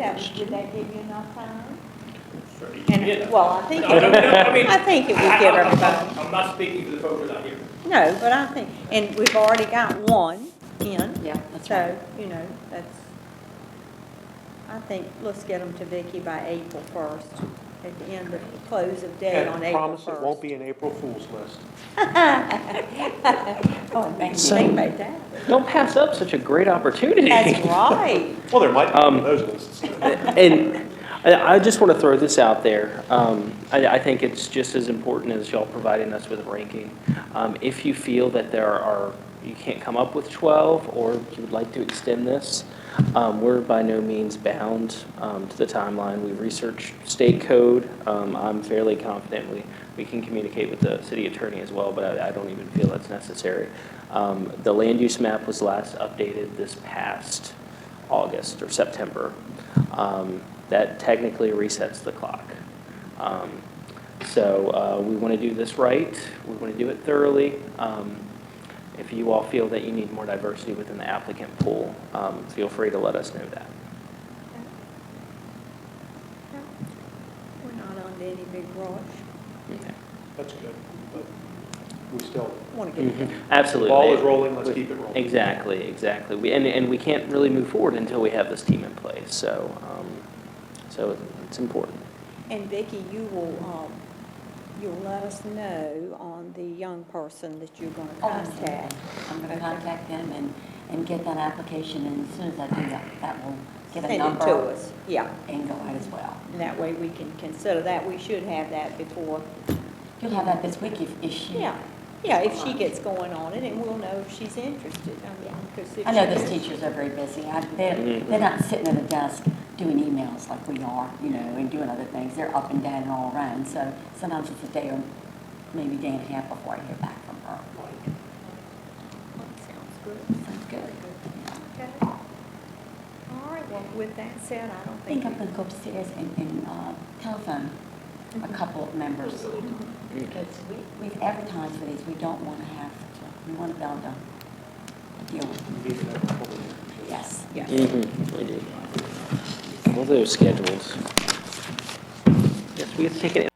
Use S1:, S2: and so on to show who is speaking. S1: that, would that give you enough time?
S2: Yeah.
S1: And, well, I think,
S2: No, no, no, I mean-
S1: it- I think it would give
S2: I- I'm not-
S1: everybody,
S2: I'm not speaking to the folks that are here.
S1: no, but I think, and we've already got one in,
S3: Yeah, that's
S1: so,
S3: right.
S1: you know, that's, I think, let's get them to Vicky by April first, at the end of, close of day on
S4: And
S1: April
S4: promise
S1: first.
S4: it won't be an April Fool's list.
S1: Oh, and thank you,
S5: So-
S1: think about that.
S5: Don't pass up such a great opportunity.
S1: That's right.
S4: Well, there might be one
S5: Um,
S4: of those lists.
S5: And I I just want to throw this out there. Um, I I think it's just as important as y'all providing us with a ranking. Um, If you feel that there are, you can't come up with 12, or you would like to extend this, um, we're by no means bound um, to the timeline. We research state code. Um, I'm fairly confident we we can communicate with the city attorney as well, but I I don't even feel that's necessary. Um, The land use map was last updated this past August or September. Um, That technically resets the clock. Um, So uh, we want to do this right, we want to do it thoroughly. Um, If you all feel that you need more diversity within the applicant pool, um, feel free to let us know that.
S1: We're not on any big rush.
S5: Okay.
S4: That's good, but we still,
S1: Want to get it done.
S5: Mm-hmm. Absolutely.
S4: ball is rolling, let's keep it rolling.
S5: Exactly, exactly. We- And, and we can't really move forward until we have this team in place, so, um, so it's important.
S1: And Vicki, you will, um, you'll let us know on the young person that you're gonna
S3: Oh,
S1: contact.
S3: I'm going
S1: Okay.
S3: to contact them and, and get that application, and as soon as I do that, that will get a
S1: Send it
S3: number.
S1: to us, yeah.
S3: And go out as well.
S1: And that way we can consider that, we should have that before,
S3: You'll have that this week if, if she.
S1: yeah. Yeah, if she gets going on it, and we'll know if she's interested, I mean, 'cause if
S3: I know
S1: she
S3: those
S1: is-
S3: teachers are very busy. I- They're,
S5: Mhm.
S1: Mm-hmm.
S3: they're not sitting at a desk doing emails like we are, you know, and doing other things. They're up and down and all around, so sometimes it's a day or maybe day and a half before I hear back from her.
S1: Sounds good.
S3: Sounds good.
S1: Okay. All right, well, with that said, I don't
S3: I
S1: think.
S3: think I'm going to go upstairs and, and uh, telephone a couple of members. Because we, we've advertised for these, we don't want to have to, we want to be able to deal with them.
S4: we need an April Fool's list.
S3: Yes.
S1: Yeah.
S5: Mm-hmm, we do. All those schedules. Mm-hmm. Yes, we have to take an